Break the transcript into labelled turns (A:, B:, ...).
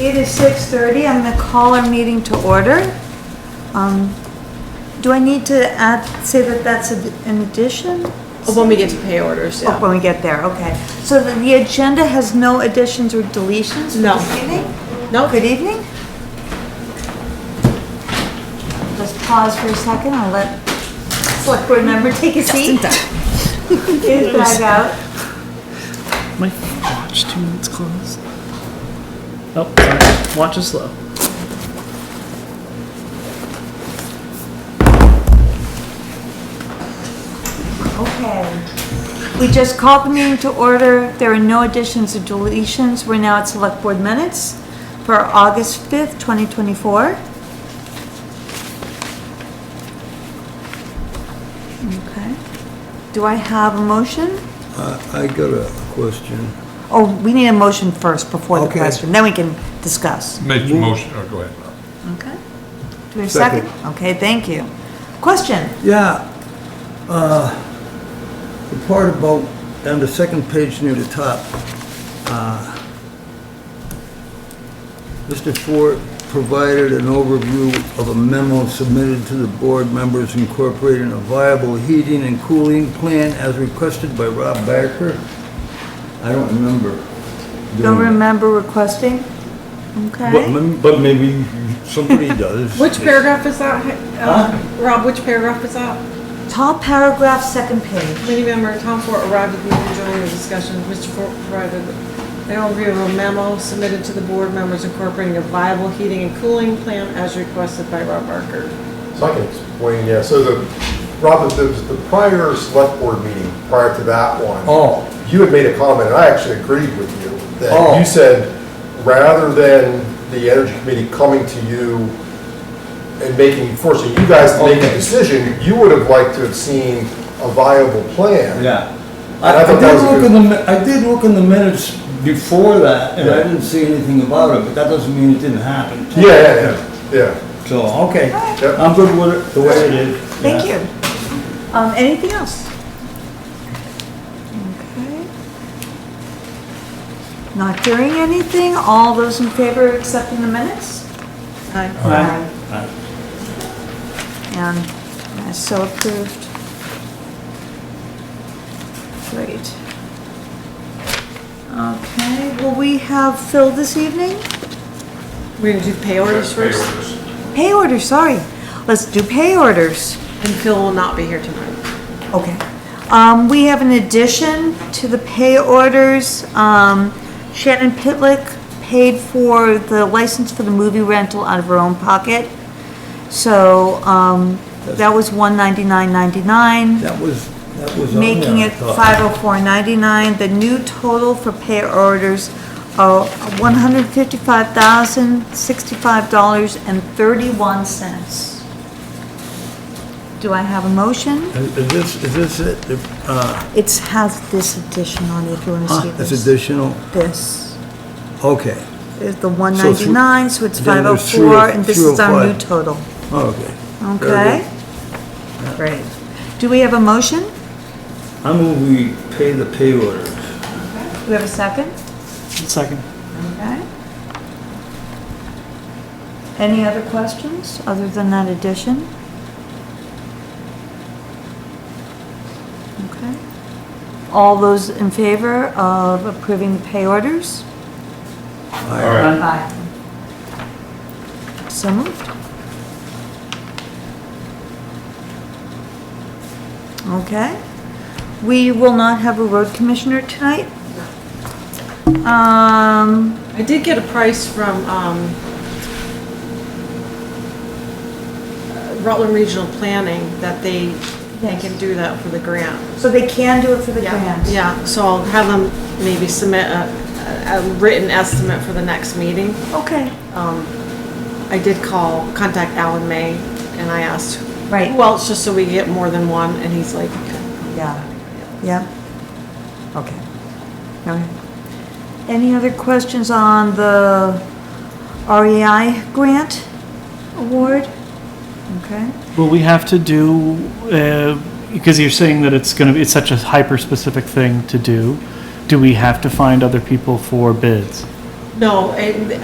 A: It is 6:30, I'm going to call our meeting to order. Um, Do I need to add, say that that's a- an addition?
B: Oh, When we get to pay orders,
A: Oh,
B: yeah.
A: When we get there, okay. So the- the agenda has no additions or deletions for
B: No.
A: this evening?
B: No,
A: Good evening. Just pause for a second, I'll let select board member take a seat. Get his bag out.
C: My watch two minutes closed. Oh, sorry. Watch is slow.
A: Okay. We just called the meeting to order. There are no additions or deletions. We're now at select board minutes for August 5th, 2024. Okay. Do I have a motion?
D: I I got a question.
A: Oh, we need a motion first before the
D: Okay.
A: question, then we can discuss.
E: Make the motion, oh, go ahead.
A: Okay. Do we have a second? Okay, thank you. Question?
D: Yeah, uh, the part about, on the second page near the top, uh, Mr. Ford provided an overview of a memo submitted to the board members incorporating a viable heating and cooling plan as requested by Rob Barker. I don't remember.
A: Don't
D: doing that.
A: remember requesting?
D: But
A: Okay.
D: mem- But maybe somebody does.
B: Which paragraph is that? Uh, Rob, which paragraph is that?
A: Top paragraph, second page.
B: Committee member Tom Ford arrived at the meeting during the discussion. Mr. Ford provided an overview of a memo submitted to the board members incorporating a viable heating and cooling plan as requested by Rob Barker.
F: So I can explain, yeah, so the, Robert, the, the prior select board meeting, prior to that one.
D: Oh.
F: You had made a comment, and I actually agreed with you,
D: Oh.
F: that you said, rather than the energy committee coming to you and making, forcing you guys to make a
D: Okay.
F: decision, you would have liked to have seen a viable plan.
D: Yeah.
F: And
D: I,
F: I
D: I
F: thought that
D: did
F: was a
D: look in
F: good-
D: the, mi- I did look in the minutes before that, and I
F: Yeah.
D: didn't see anything about it, but that doesn't mean it didn't happen.
F: Yeah, yeah, yeah, yeah.
D: So, okay,
F: Yep.
D: I'm good with it, the way it is.
A: Thank
D: Yeah.
A: you. Um, anything else? Okay. Not hearing anything, all those in favor accepting the minutes?
D: Aye. Aye.
A: And uh, so approved. Great. Okay, will we have Phil this evening?
B: We're gonna do pay orders first,
A: Pay order, sorry. Let's do pay orders.
B: and Phil will not be here tonight.
A: Okay. Um, we have an addition to the pay orders. Um, Shannon Pitlick paid for the license for the movie rental out of her own pocket. So, um, that was one ninety-nine ninety-nine,
D: That was, that was on there.
A: making
D: I
A: it
D: thought.
A: five oh four ninety-nine. The new total for pay orders are one hundred fifty-five thousand, sixty-five dollars and thirty-one cents. Do I have a motion?
D: Is is this, is this it? The- Uh,
A: It has this addition on it, if you want to see
D: huh, it's
A: this.
D: additional,
A: This
D: okay,
A: is the 199, so it's
D: then there's
A: 504,
D: 305.
A: and this is our new total.
D: okay. Very
A: Okay?
D: good.
A: Great. Do we have a motion?
D: I move we pay the pay orders.
A: Do we have a second?
C: Second.
A: Okay. Any other questions, other than that addition? Okay. All those in favor of approving the pay orders?
D: Aye.
E: All right.
A: Aye. So moved. Okay. We will not have a road commissioner tonight. Um,
B: I did get a price from, um, uh, Rutland Regional Planning that they, they can do that for the grant.
A: so they can do it for the grant?
B: Yeah, so I'll have them maybe submit a, a written estimate for the next meeting.
A: Okay,
B: I did call, contact Alan May, and I asked.
A: Right.
B: Who else, just so we get more than one, and he's like,
A: yeah, yeah. Okay. All right. Any other questions on the REI grant award? Okay.
C: Will we have to do, uh, because you're saying that it's going to be, it's such a hyper-specific thing to do, do we have to find other people for bids?
B: no, and